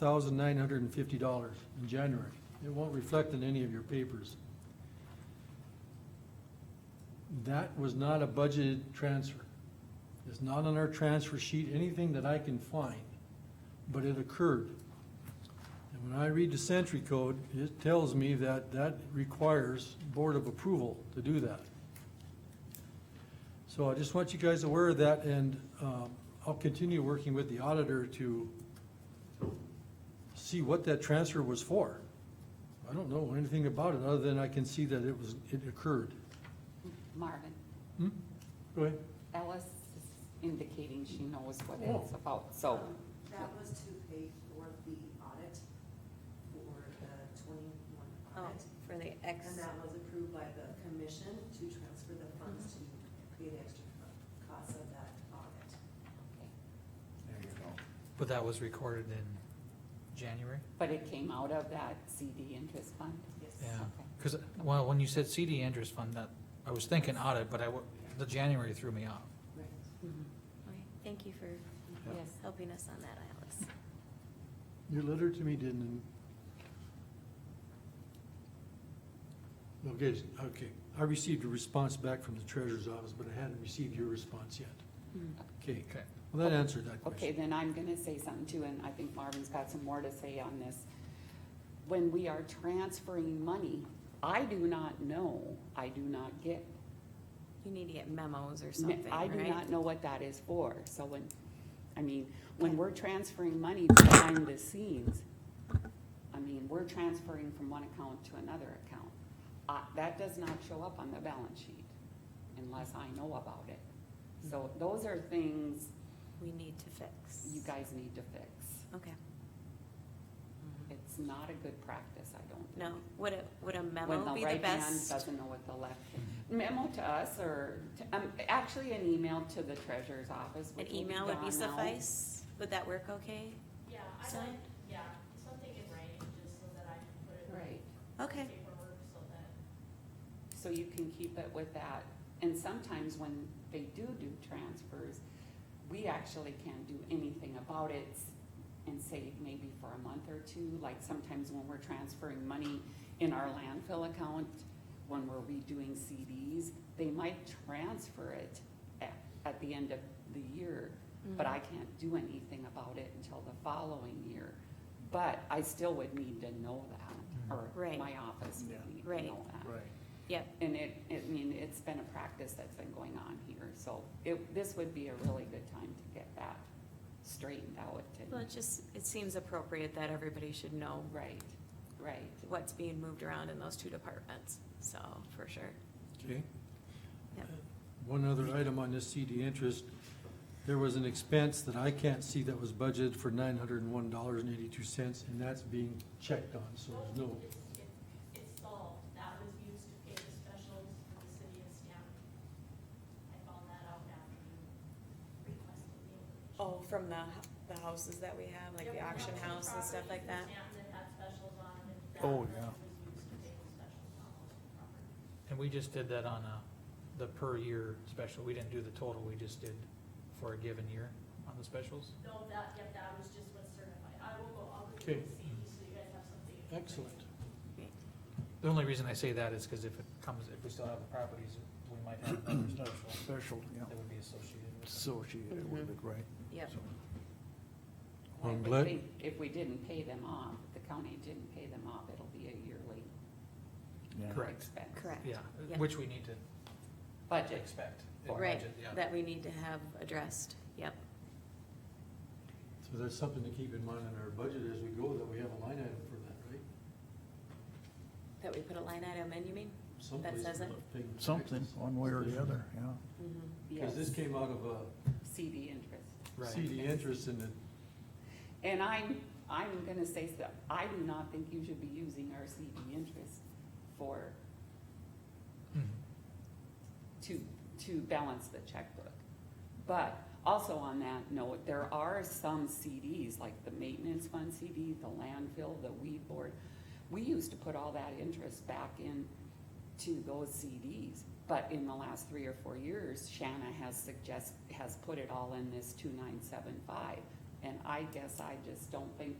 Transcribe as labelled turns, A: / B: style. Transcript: A: thousand nine hundred and fifty dollars in January. It won't reflect in any of your papers. That was not a budgeted transfer. It's not on our transfer sheet, anything that I can find, but it occurred. And when I read the Sentry Code, it tells me that that requires Board of Approval to do that. So I just want you guys aware of that, and um, I'll continue working with the auditor to see what that transfer was for. I don't know anything about it, other than I can see that it was, it occurred.
B: Marvin,
A: Hmm? Go ahead.
B: Alice is indicating she knows what it's about,
C: Oh,
B: so,
C: That was to pay for the audit, for the twenty-one
D: Oh,
C: audit.
D: for the
C: And
D: X,
C: that was approved by the commission to transfer the funds to pay the extra co- costs of that audit.
E: But that was recorded in January?
B: but it came out of that CD interest fund?
C: Yes.
E: Yeah,
B: Okay.
E: because, well, when you said CD interest fund, that, I was thinking audit, but I, wa- the January threw me off.
C: Right.
B: Mhm.
D: Okay, thank you for
B: Yes,
D: helping us on that, Alex.
A: Your letter to me didn't. Okay, okay. I received a response back from the treasurer's office, but I hadn't received your response yet. Hmm. Okay,
E: Okay.
A: well, that answered that
B: Okay,
A: question.
B: then I'm gonna say something too, and I think Marvin's got some more to say on this. When we are transferring money, I do not know, I do not get
D: You need to get memos or
B: Ma-
D: something,
B: I do
D: right?
B: not know what that is for, so when, I mean, when
D: Okay.
B: we're transferring money behind the scenes, I mean, we're transferring from one account to another account. Uh, that does not show up on the balance sheet unless I know about it. So
D: Hmm.
B: those are things
D: We need to fix.
B: you guys need to fix.
D: Okay,
B: It's not a good practice, I don't think.
D: no, would a, would a
B: When
D: memo
B: the
D: be the
B: right hand
D: best?
B: doesn't know what the left, memo to us or, to- um, actually an email to the treasurer's office.
D: An
B: which will
D: email would be
B: gone out.
D: suffice? Would that work okay?
F: Yeah, I
D: So-
F: like, yeah, something in writing, just so that I can put it in
B: Right,
D: Okay,
F: paperwork, so that,
B: so you can keep it with that, and sometimes when they do do transfers, we actually can't do anything about it and save maybe for a month or two, like sometimes when we're transferring money in our landfill account, when we're redoing CDs, they might transfer it at, at the end of the year, but
D: Mhm.
B: I can't do anything about it until the following year. But I still would need to know that, or
D: Right.
B: my office
A: Yeah.
B: would need to
D: Right.
B: know that.
A: Right.
D: yep,
B: And it, I mean, it's been a practice that's been going on here, so it, this would be a really good time to get that straightened out
D: Mm-hmm. well,
B: and,
D: it just, it seems appropriate that everybody should know
B: right, right.
D: what's being moved around in those two departments, so, for sure.
A: Okay. Uh,
D: Yep.
A: One other item on this CD interest, there was an expense that I can't see that was budgeted for nine hundred and one dollars and eighty-two cents, and that's being checked on, so there's no,
F: it's, it- it's solved, that was used to pay the specials for the city of Stanton. I found that out after you requested the information.
D: Oh, from the, the houses that we have,
F: There were lots of properties in Stanton that had specials on, and that
E: Oh,
F: money
E: yeah.
F: was used to pay the specials on those properties.
E: And we just did that on a, the per year special, we didn't do the total, we just did for a given year on the specials.
F: No, that, yeah, that was just what's certified, I will go, I'll go
A: Okay.
F: through the CD, so you guys have something. in writing.
A: excellent.
E: The only reason I say that is because if it comes, if we still have the properties, we might have another special
G: Special, yeah,
E: that would be associated with it.
G: associated with it, right?
D: Yep,
B: I
A: Um,
B: would
A: let-
B: think If we didn't pay them off, if the county didn't pay them off, it'll be a yearly
G: Yeah.
E: Correct,
B: expense.
D: correct.
E: yeah,
D: Yeah.
E: which we need to
B: Budget,
E: expect. in
D: Right,
E: budget, yeah.
D: that we need to have addressed, yep.
A: So that's something to keep in mind in our budget as we go, that we have a line item for that, right?
D: That we put a line item in, you mean?
A: Someplace
D: says it?
A: about paying
G: Something,
A: taxes.
G: one way or the other, yeah.
A: Cause this
B: yes,
A: came out of
B: CD interest.
A: a
E: Right.
A: CD interest and it,
B: And I'm, I'm gonna say stuff, I do not think you should be using our CD interest for,
E: Mhm.
B: to, to balance the checkbook. But also on that note, there are some CDs, like the maintenance fund CD, the landfill, the weed board. We used to put all that interest back in to those CDs, but in the last three or four years, Shanna has suggest, has put it all in this two nine seven five. And I guess I just don't think